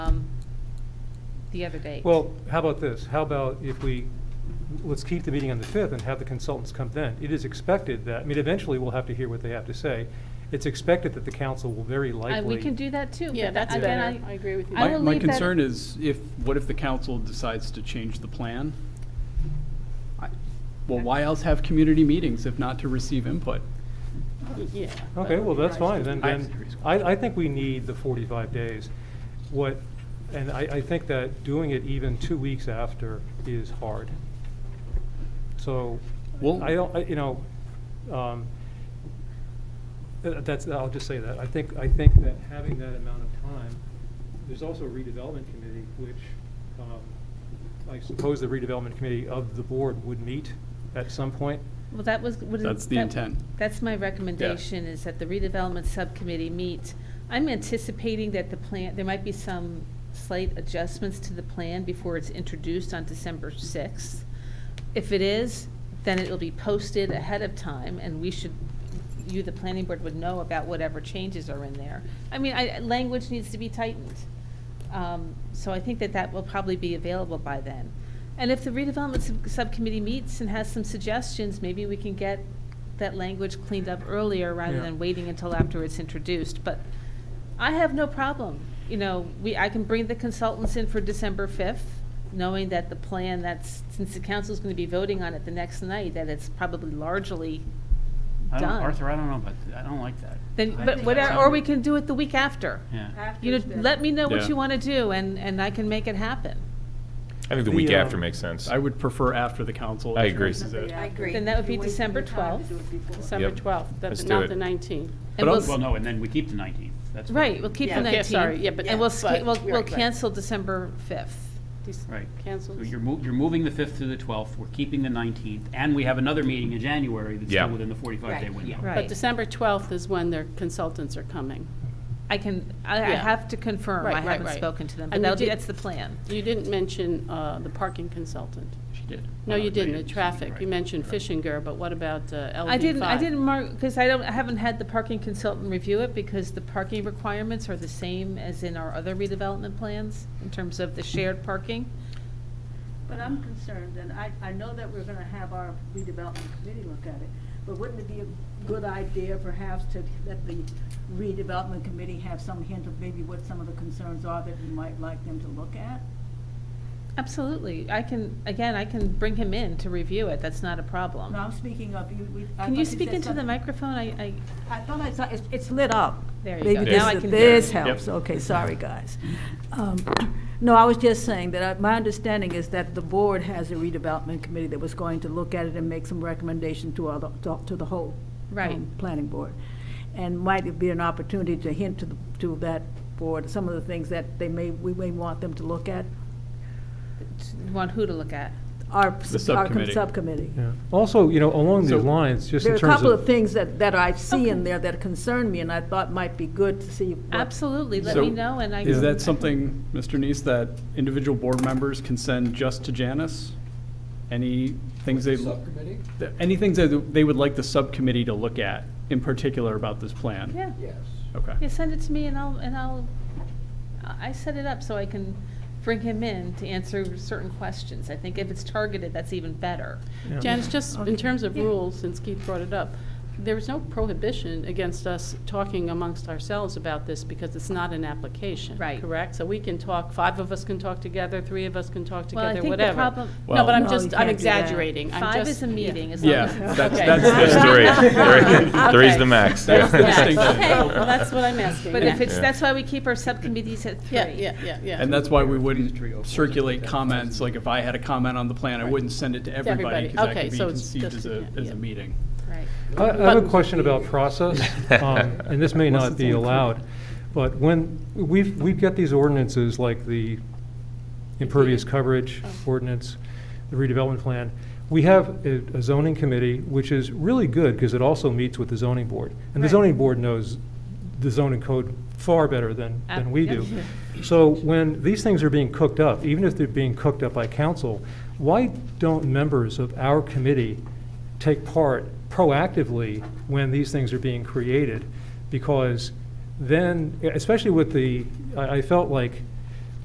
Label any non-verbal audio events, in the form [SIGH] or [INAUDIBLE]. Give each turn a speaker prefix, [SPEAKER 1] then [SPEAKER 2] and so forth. [SPEAKER 1] um, the other date.
[SPEAKER 2] Well, how about this? How about if we, let's keep the meeting on the 5th and have the consultants come then. It is expected that, I mean, eventually we'll have to hear what they have to say. It's expected that the council will very
[SPEAKER 1] I-
[SPEAKER 2] likely.
[SPEAKER 1] Uh, We can do that too.
[SPEAKER 3] Yeah,
[SPEAKER 1] but
[SPEAKER 3] that's
[SPEAKER 1] again,
[SPEAKER 3] better. I agree with you.
[SPEAKER 1] I
[SPEAKER 4] My-
[SPEAKER 1] will
[SPEAKER 4] My
[SPEAKER 1] leave that-
[SPEAKER 4] concern is if, what if the council decides to change the plan? I- Well, why else have community meetings if not to receive input?
[SPEAKER 3] Yeah.
[SPEAKER 2] Okay, well, that's fine, then,
[SPEAKER 4] I-
[SPEAKER 2] then, I, I think we need the forty-five days. What, and I, I think that doing it even two weeks after is hard. So,
[SPEAKER 4] Well-
[SPEAKER 2] I don't, I- you know, um, th- that's, I'll just say that, I think, I think that having that amount of time, there's also a redevelopment committee, which, um, I suppose the redevelopment committee of the board would meet at some point.
[SPEAKER 1] Well, that was. what is-
[SPEAKER 4] That's the
[SPEAKER 1] that-
[SPEAKER 4] intent.
[SPEAKER 1] That's my recommendation, is that the redevelopment subcommittee meet. I'm anticipating that the plan, there might be some slight adjustments to the plan before it's introduced on December sixth. If it is, then it'll be posted ahead of time, and we should, you, the planning board, would know about whatever changes are in there. I mean, I, language needs to be tightened. Um, So I think that that will probably be available by then. And if the redevelopment sub- subcommittee meets and has some suggestions, maybe we can get that language cleaned up earlier rather
[SPEAKER 2] Yeah.
[SPEAKER 1] than waiting until after it's introduced. But I have no problem, you know, we, I can bring the consultants in for December 5th, knowing that the plan that's, since the council's going to be voting on it the next night, that it's probably largely
[SPEAKER 5] I don't,
[SPEAKER 1] done.
[SPEAKER 5] Arthur, I don't know, but I don't like that.
[SPEAKER 1] Then,
[SPEAKER 5] I
[SPEAKER 1] but
[SPEAKER 5] think
[SPEAKER 1] whatever,
[SPEAKER 5] that's-
[SPEAKER 1] or we can do it the week after.
[SPEAKER 5] Yeah.
[SPEAKER 1] You know, let me know what
[SPEAKER 4] Yeah.
[SPEAKER 1] you want to do, and, and I can make it happen.
[SPEAKER 6] I think the
[SPEAKER 2] The,
[SPEAKER 6] week after
[SPEAKER 2] um,
[SPEAKER 6] makes sense.
[SPEAKER 4] I would prefer after the council.
[SPEAKER 6] I agree.
[SPEAKER 4] introduces it.
[SPEAKER 3] I agree.
[SPEAKER 1] Then that would be December 12th.
[SPEAKER 3] December
[SPEAKER 6] Yep.
[SPEAKER 3] 12th,
[SPEAKER 6] Let's
[SPEAKER 3] that's
[SPEAKER 6] do
[SPEAKER 3] not
[SPEAKER 6] it.
[SPEAKER 3] the 19th.
[SPEAKER 1] And
[SPEAKER 4] But
[SPEAKER 1] we'll
[SPEAKER 4] I'll-
[SPEAKER 1] s-
[SPEAKER 5] Well, no, and then we keep the nineteenth. That's what-
[SPEAKER 1] Right, we'll keep the
[SPEAKER 3] Yeah. Okay,
[SPEAKER 1] 19th.
[SPEAKER 3] sorry, yeah, but-
[SPEAKER 1] And we'll,
[SPEAKER 3] yeah,
[SPEAKER 1] sta-
[SPEAKER 3] but-
[SPEAKER 1] we'll, we'll
[SPEAKER 3] right, right.
[SPEAKER 1] cancel December 5th.
[SPEAKER 5] Right.
[SPEAKER 3] Cancels.
[SPEAKER 5] So you're mo- you're moving the fifth to the twelfth, we're keeping the nineteenth, and we have another meeting in January that's
[SPEAKER 6] Yeah.
[SPEAKER 5] still within the forty-five day
[SPEAKER 3] Right,
[SPEAKER 5] window.
[SPEAKER 1] Right.
[SPEAKER 3] But December 12th is when their consultants are coming.
[SPEAKER 1] I can, I I
[SPEAKER 3] Yeah.
[SPEAKER 1] have to confirm,
[SPEAKER 3] Right,
[SPEAKER 1] I
[SPEAKER 3] right,
[SPEAKER 1] haven't
[SPEAKER 3] right.
[SPEAKER 1] spoken to them, but
[SPEAKER 3] And we
[SPEAKER 1] that'll be,
[SPEAKER 3] did-
[SPEAKER 1] that's the plan.
[SPEAKER 3] You didn't mention uh, the parking consultant.
[SPEAKER 5] She did.
[SPEAKER 3] No,
[SPEAKER 5] Uh,
[SPEAKER 3] you didn't, the
[SPEAKER 5] she-
[SPEAKER 3] traffic.
[SPEAKER 5] right.
[SPEAKER 3] You mentioned Fishinger, but what about uh, LD5?
[SPEAKER 1] I didn't, I didn't mark, because I don't, I haven't had the parking consultant review it, because the parking requirements are the same as in our other redevelopment plans, in terms of the shared parking.
[SPEAKER 7] But I'm concerned, and I, I know that we're gonna have our redevelopment committee look at it, but wouldn't it be a good idea perhaps to let the redevelopment committee have some hint of maybe what some of the concerns are that we might like them to look at?
[SPEAKER 1] Absolutely, I can, again, I can bring him in to review it, that's not a
[SPEAKER 7] No,
[SPEAKER 1] problem.
[SPEAKER 7] I'm speaking of, you, we. I
[SPEAKER 1] Can
[SPEAKER 7] thought
[SPEAKER 1] you speak
[SPEAKER 7] said
[SPEAKER 1] into the
[SPEAKER 7] something-
[SPEAKER 1] microphone? I, I,
[SPEAKER 7] I thought I saw, it's, it's lit up.
[SPEAKER 1] There you go.
[SPEAKER 7] Maybe
[SPEAKER 1] Now I
[SPEAKER 7] this,
[SPEAKER 1] can-
[SPEAKER 7] this
[SPEAKER 6] Yep.
[SPEAKER 7] helps, okay, sorry, guys. Um, [CLEARS THROAT] No, I was just saying that I- my understanding is that the board has a redevelopment committee that was going to look at it and make some recommendation to other, to- to the whole.
[SPEAKER 1] Right.
[SPEAKER 7] um, Planning board. And might it be an opportunity to hint to, the to that board, some of the things that they may, we may want them to look at,
[SPEAKER 1] want who to look at?
[SPEAKER 7] our.
[SPEAKER 4] The subcommittee.
[SPEAKER 7] Our subcommittee.
[SPEAKER 2] Yeah. Also, you know, along
[SPEAKER 4] So-
[SPEAKER 2] these lines, just
[SPEAKER 7] There are
[SPEAKER 2] in
[SPEAKER 7] a
[SPEAKER 2] terms
[SPEAKER 7] couple of
[SPEAKER 2] of,
[SPEAKER 7] things that, that I see in there that concern me and I thought might be good to see. what-
[SPEAKER 1] Absolutely, let
[SPEAKER 4] So,
[SPEAKER 1] me know, and I.
[SPEAKER 4] Is
[SPEAKER 1] can-
[SPEAKER 4] that something, Mr. Neese, that individual board members can send just to Janice? Any things they. Subcommittee? Any things that they would like the subcommittee to look at in particular about this plan?
[SPEAKER 1] Yeah.
[SPEAKER 4] Okay.
[SPEAKER 1] Yeah, send it to me and I'll, and I'll, I I set it up so I can bring him in to answer certain questions. I think if it's targeted, that's even better.
[SPEAKER 2] Yeah.
[SPEAKER 3] Janice, just in terms of
[SPEAKER 7] Yeah.
[SPEAKER 3] rules, since Keith brought it up, there is no prohibition against us talking amongst ourselves about this because it's not an application.
[SPEAKER 1] Right.
[SPEAKER 3] Correct? So we can talk, five of us can talk together, three of us can talk
[SPEAKER 1] Well, I
[SPEAKER 3] together,
[SPEAKER 1] think the
[SPEAKER 3] whatever.
[SPEAKER 1] problem-
[SPEAKER 3] No, but I'm
[SPEAKER 7] Well- No, you
[SPEAKER 3] just, I'm
[SPEAKER 7] can't do that.
[SPEAKER 3] exaggerating. I'm
[SPEAKER 1] Five
[SPEAKER 3] just-
[SPEAKER 1] is a meeting, as long
[SPEAKER 4] Yeah,
[SPEAKER 1] as it's.
[SPEAKER 4] that's,
[SPEAKER 3] Okay.
[SPEAKER 4] that's.
[SPEAKER 6] It's
[SPEAKER 1] [LAUGHS]
[SPEAKER 4] [LAUGHS]
[SPEAKER 6] three. Three-
[SPEAKER 3] Okay.
[SPEAKER 6] Three's the max.
[SPEAKER 4] That's the
[SPEAKER 6] Yeah.
[SPEAKER 4] [LAUGHS] distinction.
[SPEAKER 3] Okay, well, that's what I'm asking.
[SPEAKER 1] But if it's,
[SPEAKER 6] Yeah.
[SPEAKER 1] that's why we keep our subcommittees at three.
[SPEAKER 3] Yeah, yeah, yeah, yeah.
[SPEAKER 4] And that's why we wouldn't circulate comments, like if I had a comment on the plan, I wouldn't send it to everybody,
[SPEAKER 3] everybody.
[SPEAKER 4] because that
[SPEAKER 3] Okay,
[SPEAKER 4] could be
[SPEAKER 3] so it's
[SPEAKER 4] conceived as
[SPEAKER 3] just-
[SPEAKER 4] a, as
[SPEAKER 3] yeah.
[SPEAKER 4] a meeting.
[SPEAKER 1] Right.
[SPEAKER 2] I I have a question about process, um, and this may
[SPEAKER 4] Unless
[SPEAKER 2] not
[SPEAKER 4] it's
[SPEAKER 2] be
[SPEAKER 4] only three.
[SPEAKER 2] allowed, but when, we've, we've got these ordinances like the impervious coverage ordinance, the redevelopment plan. We have a a zoning committee, which is really good because it also meets with the zoning board. And the
[SPEAKER 1] Right.
[SPEAKER 2] zoning board knows the zoning code far better than,
[SPEAKER 1] Ab-
[SPEAKER 2] than we
[SPEAKER 1] yeah.
[SPEAKER 2] do. So when these things are being cooked up, even if they're being cooked up by council, why don't members of our committee take part proactively when these things are being created? Because then, especially with the, I, I felt like